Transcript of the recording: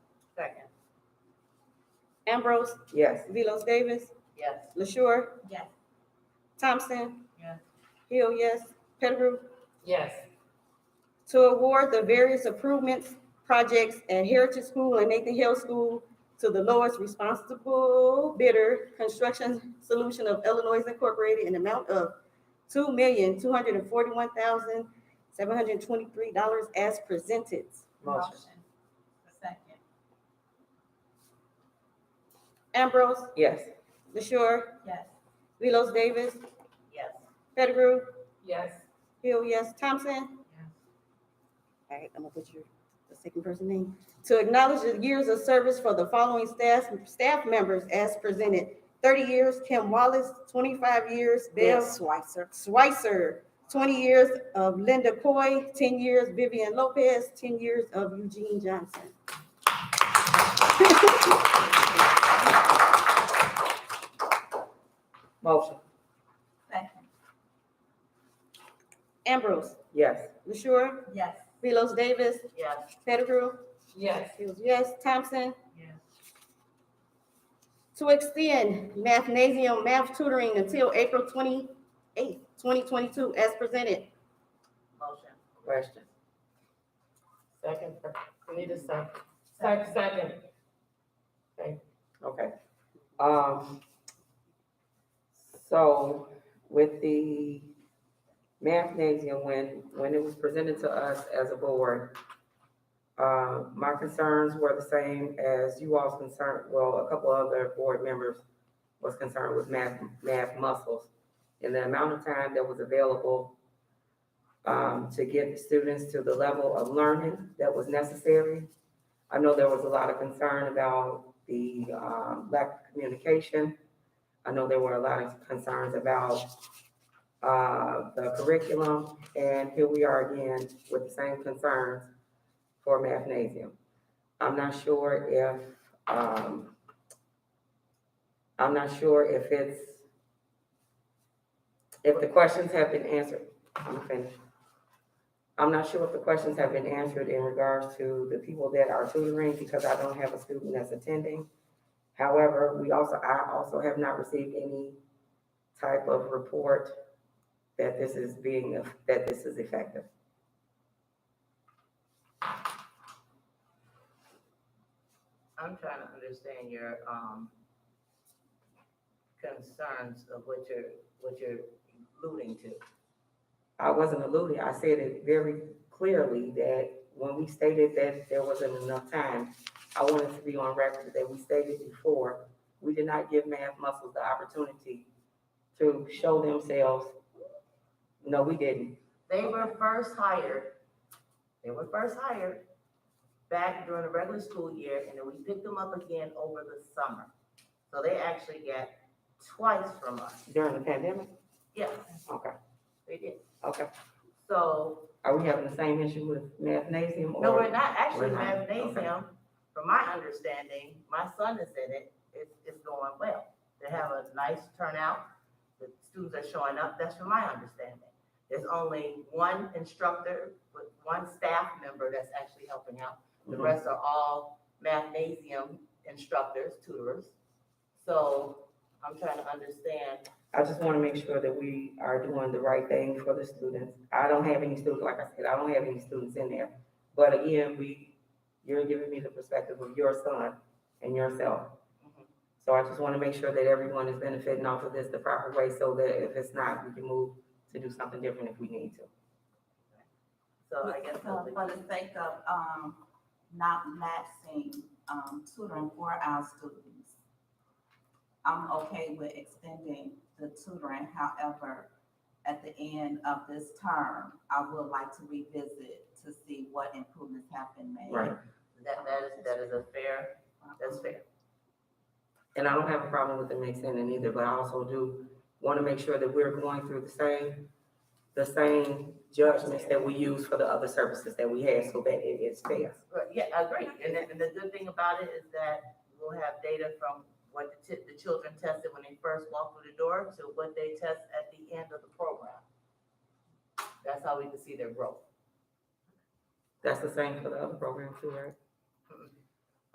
Ambrose, Yes. Velos Davis, Yes. LaShure, Yes. Thompson. Yes. Hill, yes. Pettigrew, Yes. to award the various improvements, projects at Heritage School and Nathan Hill School to the lowest responsible bidder, Construction Solution of Illinois Incorporated, in amount of two million, two hundred and forty-one thousand, seven hundred and twenty-three dollars as presented. Motion. A second. Ambrose, Yes. LaShure, Yes. Velos Davis, Yes. Pettigrew, Yes. Hill, yes. Thompson? All right, I'm gonna put your, the second person name. To acknowledge the years of service for the following staff, staff members as presented. Thirty years, Kim Wallace, twenty-five years, Bill Switzer. Schweitzer, twenty years of Linda Coy, ten years Vivian Lopez, ten years of Eugene Johnson. Motion. Second. Ambrose, Yes. LaShure, Yes. Velos Davis, Yes. Pettigrew, Yes. Hughes, yes, Thompson, Yes. to extend mathnasium math tutoring until April twenty-eighth, twenty twenty-two, as presented. Motion. Question. Second, we need a second, second, second. Okay. Um, so with the mathnasium, when, when it was presented to us as a board, uh, my concerns were the same as you all's concern, well, a couple other board members was concerned with math, math muscles. And the amount of time that was available, um, to get students to the level of learning that was necessary. I know there was a lot of concern about the um, lack of communication. I know there were a lot of concerns about uh, the curriculum, and here we are again with the same concerns for mathnasium. I'm not sure if, um, I'm not sure if it's, if the questions have been answered. I'm finished. I'm not sure if the questions have been answered in regards to the people that are tutoring, because I don't have a student that's attending. However, we also, I also have not received any type of report that this is being, that this is effective. I'm trying to understand your, um, concerns of what you're, what you're alluding to. I wasn't alluding, I said it very clearly that when we stated that there wasn't enough time, I wanted to be on record that we stated before, we did not give math muscles the opportunity to show themselves. No, we didn't. They were first hired, they were first hired back during the regular school year, and then we picked them up again over the summer. So they actually got twice from us. During the pandemic? Yes, Okay, they did. okay. So Are we having the same issue with mathnasium or? No, we're not, actually, We're not, mathnasium, from my understanding, my son is in it, it's, it's going well. They have a nice turnout, the students are showing up, that's from my understanding. There's only one instructor, with one staff member that's actually helping out. The Mhm. rest are all mathnasium instructors, tutors. So I'm trying to understand, I just want to make sure that we are doing the right thing for the students. I don't have any students, like I said, I don't have any students in there. But again, we, you're giving me the perspective of your son and yourself. Mhm. So I just want to make sure that everyone is benefiting off of this the proper way so that if it's not, we can move to do something different if we need to. so I guess. So for the sake of, um, not maxing, um, tutoring for our students, I'm okay with extending the tutoring, however, at the end of this term, I would like to revisit to see what improvements have been made. Right. That, that is, that is a fair, that's fair. And I don't have a problem with the mixing in either, but I also do want to make sure that we're going through the same, the same judgments that we use for the other services that we have so that it is fair. Right, yeah, I agree. And the, and the good thing about it is that we'll have data from what the, ti- the children tested when they first walked through the door to what they test at the end of the program. That's how we can see their growth. That's the same for the other program too, right?